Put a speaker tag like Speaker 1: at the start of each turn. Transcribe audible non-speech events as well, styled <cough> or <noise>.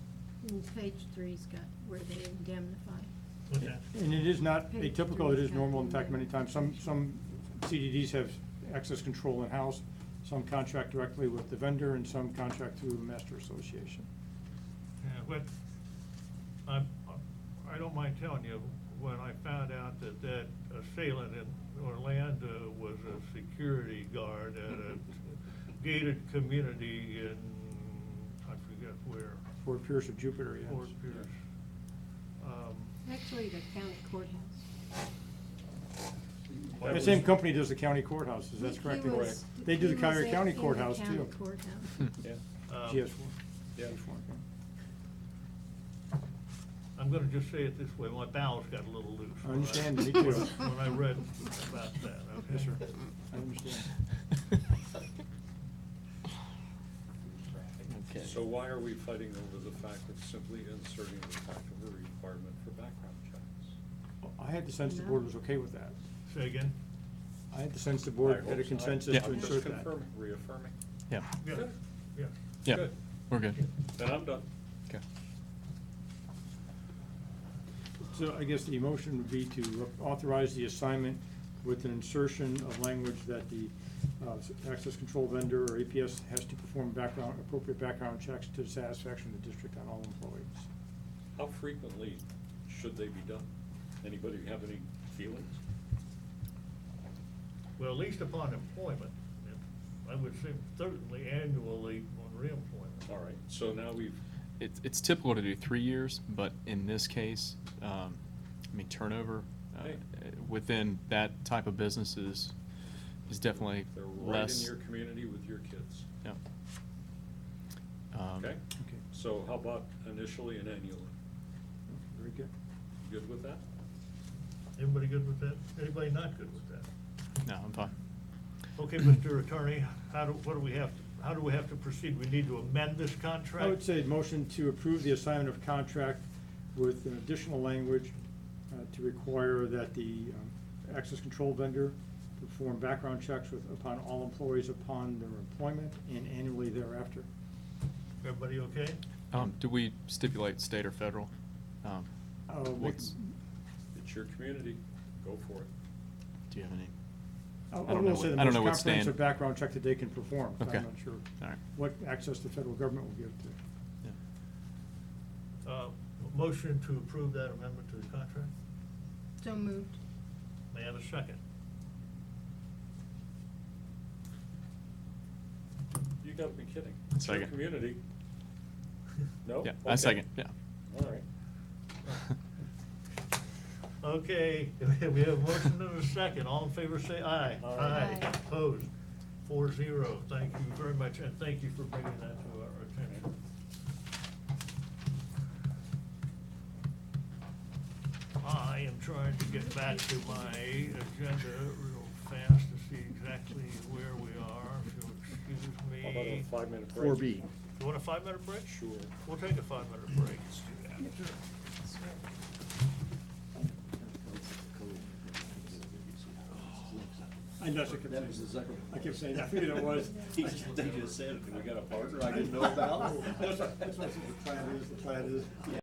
Speaker 1: And page three's got where they indemnify.
Speaker 2: Okay.
Speaker 3: And it is not atypical, it is normal, in fact, many times, some, some CDDs have access control in-house, some contract directly with the vendor, and some contract through the master association.
Speaker 2: Yeah, but I'm, I don't mind telling you, when I found out that that assailant in Orlando was a security guard at
Speaker 3: <laughs>
Speaker 2: a gated community in, I forget where.
Speaker 3: Fort Pierce or Jupiter, yes.
Speaker 2: Fort Pierce. Um,
Speaker 1: Actually, the county courthouse.
Speaker 2: that
Speaker 3: The
Speaker 2: was-
Speaker 3: same company does the county courthouses, that's
Speaker 1: He
Speaker 3: correct.
Speaker 1: was-
Speaker 3: They do
Speaker 1: he
Speaker 3: the
Speaker 1: was
Speaker 3: Cuyahoga
Speaker 1: at-
Speaker 3: County
Speaker 1: in the
Speaker 3: courthouse
Speaker 1: county
Speaker 3: too.
Speaker 1: courthouse.
Speaker 4: Yeah.
Speaker 2: um,
Speaker 3: GS four.
Speaker 4: Yeah.
Speaker 3: GS four, okay.
Speaker 2: I'm gonna just say it this way, my bowels got a little loose.
Speaker 3: I
Speaker 2: when
Speaker 3: understand,
Speaker 1: me
Speaker 2: <laughs> when I-
Speaker 1: too.
Speaker 2: When I read about that, okay?
Speaker 3: Yes, sir. I
Speaker 1: <laughs>
Speaker 3: understand.
Speaker 4: Okay.
Speaker 5: So why are we fighting over the fact of simply inserting the fact of a requirement for background checks?
Speaker 3: I had the sense the board was okay with that.
Speaker 2: Say again?
Speaker 3: I had the sense the
Speaker 5: I
Speaker 3: board
Speaker 5: hope
Speaker 3: had a
Speaker 5: so.
Speaker 3: consensus
Speaker 6: Yeah.
Speaker 3: to
Speaker 5: I'm just
Speaker 3: insert that.
Speaker 5: confirming, reaffirming.
Speaker 6: Yeah,
Speaker 2: Yeah,
Speaker 5: Good.
Speaker 2: yeah.
Speaker 6: yeah,
Speaker 5: Good.
Speaker 6: <laughs> we're good.
Speaker 5: Then I'm done.
Speaker 6: Okay.
Speaker 3: So I guess the motion would be to authorize the assignment with an insertion of language that the uh, access control vendor or APS has to perform background, appropriate background checks to the satisfaction of the district on all employees.
Speaker 5: How frequently should they be done? Anybody have any feelings?
Speaker 2: Well, at least upon employment, it- I would say certainly annually on reemployment.
Speaker 5: All right, so now we've,
Speaker 6: It's, it's typical to do three years, but in this case, um, I mean, turnover, uh,
Speaker 5: Hey.
Speaker 6: within that type of business is, is definitely
Speaker 5: they're right in
Speaker 6: less.
Speaker 5: your community with your kids,
Speaker 6: Yeah. Um,
Speaker 5: okay?
Speaker 3: Okay.
Speaker 5: So how about initially and annually?
Speaker 3: Very good.
Speaker 5: Good with that?
Speaker 2: Anybody good with that? Anybody not good with that?
Speaker 6: No, I'm fine.
Speaker 3: <clears throat>
Speaker 2: Okay, Mr. Attorney, how do, what do we have, to- how do we have to proceed? We need to amend this contract?
Speaker 3: I would say motion to approve the assignment of contract with an additional language uh, to require that the um, access control vendor perform background checks with, upon all employees upon their employment and annually thereafter.
Speaker 2: Everybody okay?
Speaker 6: Um, do we stipulate state or federal? Um,
Speaker 3: Uh, we-
Speaker 6: what's-
Speaker 5: It's your community, go for it.
Speaker 6: do you have any?
Speaker 3: I
Speaker 6: I don't know
Speaker 3: will say
Speaker 6: what-
Speaker 3: the
Speaker 6: I don't
Speaker 3: most
Speaker 6: know what stand-
Speaker 3: comprehensive background check that they can perform. so
Speaker 6: Okay.
Speaker 3: I'm not sure
Speaker 6: All right.
Speaker 3: what access the federal government will give to.
Speaker 6: Yeah.
Speaker 2: Uh, motion to approve that amendment to the contract?
Speaker 1: So moved.
Speaker 2: May I have a second?
Speaker 5: You gotta be kidding. It's your
Speaker 6: Second.
Speaker 5: community. No?
Speaker 6: Yeah,
Speaker 5: Okay.
Speaker 6: I second, yeah.
Speaker 5: All right.
Speaker 2: Okay, <laughs> we have a motion and a second. All in favor, say aye.
Speaker 5: Aye.
Speaker 1: Aye.
Speaker 2: Opposed? Four zero. Thank you very much, and thank you for bringing that to our attention. I am trying to get back to my agenda real fast to see exactly where we are, if you'll excuse me.
Speaker 5: How about a five-minute break?
Speaker 4: Four B.
Speaker 2: You want a five-minute break?
Speaker 5: Sure.
Speaker 2: We'll take a five-minute break. Let's do that.
Speaker 3: I know, I kept
Speaker 4: That was the second.
Speaker 3: I kept saying, <laughs> I figured it
Speaker 4: <laughs>
Speaker 3: was.
Speaker 4: They just said, we got a partner I didn't
Speaker 3: <laughs>
Speaker 4: know
Speaker 3: That's
Speaker 4: about. <laughs>
Speaker 3: what, that's what the plan is, the plan is.